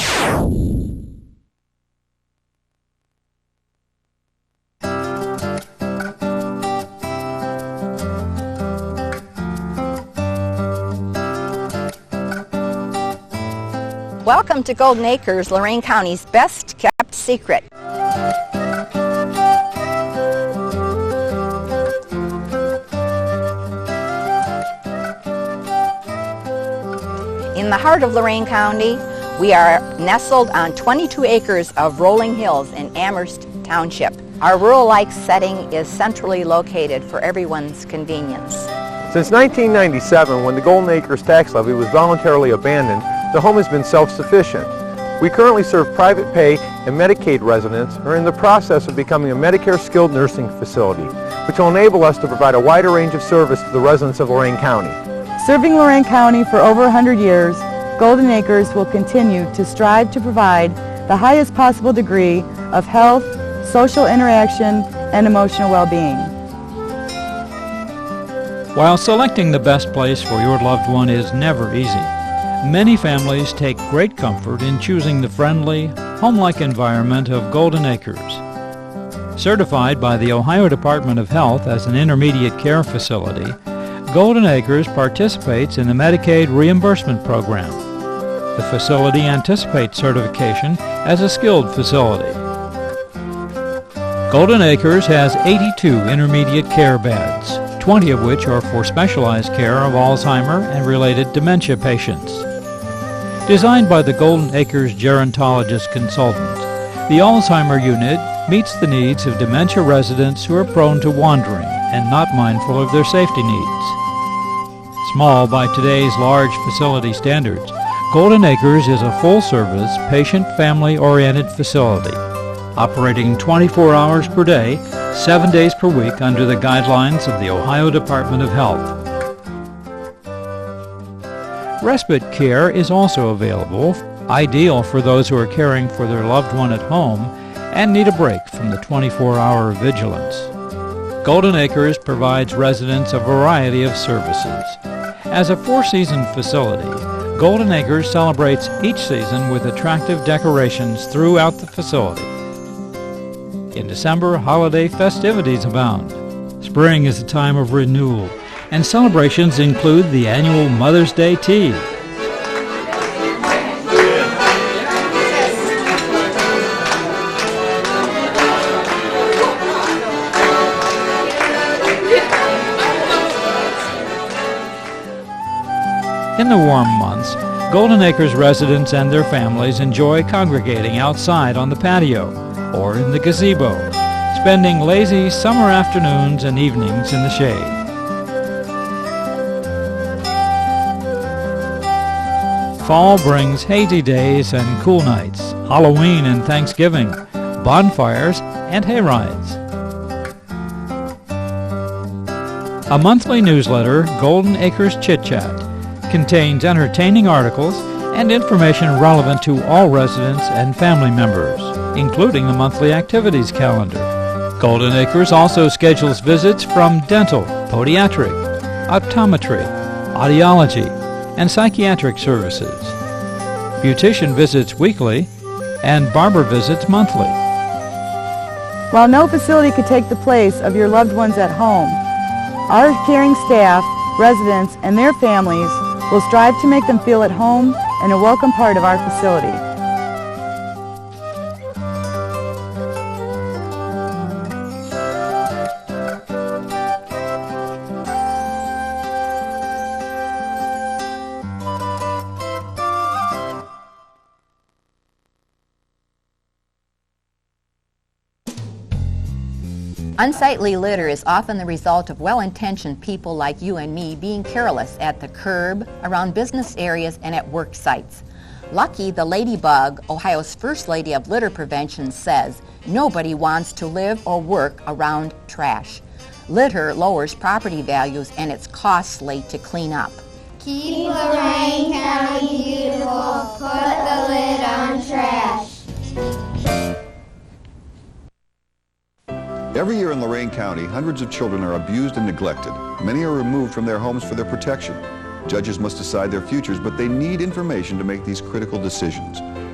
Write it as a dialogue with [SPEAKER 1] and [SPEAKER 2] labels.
[SPEAKER 1] Welcome to Golden Acres, Lorraine County's best kept secret. In the heart of Lorraine County, we are nestled on 22 acres of rolling hills in Amherst Township. Our rural-like setting is centrally located for everyone's convenience.
[SPEAKER 2] Since 1997, when the Golden Acres tax levy was voluntarily abandoned, the home has been self-sufficient. We currently serve private pay and Medicaid residents and are in the process of becoming a Medicare skilled nursing facility, which will enable us to provide a wider range of service to the residents of Lorraine County.
[SPEAKER 3] Serving Lorraine County for over 100 years, Golden Acres will continue to strive to provide the highest possible degree of health, social interaction, and emotional well-being.
[SPEAKER 4] While selecting the best place for your loved one is never easy, many families take great comfort in choosing the friendly, home-like environment of Golden Acres. Certified by the Ohio Department of Health as an intermediate care facility, Golden Acres participates in the Medicaid reimbursement program. The facility anticipates certification as a skilled facility. Golden Acres has 82 intermediate care beds, 20 of which are for specialized care of Alzheimer and related dementia patients. Designed by the Golden Acres gerontologist consultant, the Alzheimer unit meets the needs of dementia residents who are prone to wandering and not mindful of their safety needs. Small by today's large facility standards, Golden Acres is a full-service, patient-family-oriented facility operating 24 hours per day, 7 days per week under the guidelines of the Ohio Department of Health. Respite care is also available, ideal for those who are caring for their loved one at home and need a break from the 24-hour vigilance. Golden Acres provides residents a variety of services. As a four-season facility, Golden Acres celebrates each season with attractive decorations throughout the facility. In December, holiday festivities abound. Spring is a time of renewal, and celebrations include the annual Mother's Day Tea, In the warm months, Golden Acres residents and their families enjoy congregating outside on the patio or in the gazebo, spending lazy summer afternoons and evenings in the shade. Fall brings hazy days and cool nights, Halloween and Thanksgiving, bonfires, and hay rides. A monthly newsletter, Golden Acres Chit Chat, contains entertaining articles and information relevant to all residents and family members, including the monthly activities calendar. Golden Acres also schedules visits from dental, podiatric, optometry, audiology, and psychiatric services. Beautician visits weekly and barber visits monthly.
[SPEAKER 3] While no facility could take the place of your loved ones at home, our caring staff, residents, and their families will strive to make them feel at home and a welcome part of our facility.
[SPEAKER 1] Unsightly litter is often the result of well-intentioned people like you and me being careless at the curb, around business areas, and at work sites. Lucky, the ladybug, Ohio's first lady of litter prevention, says nobody wants to live or work around trash. Litter lowers property values and it's costly to clean up.
[SPEAKER 5] Keep Lorraine County beautiful. Put the lid on trash.
[SPEAKER 6] Every year in Lorain County, hundreds of children are abused and neglected. Many are removed from their homes for their protection. Judges must decide their futures, but they need information to make these critical decisions.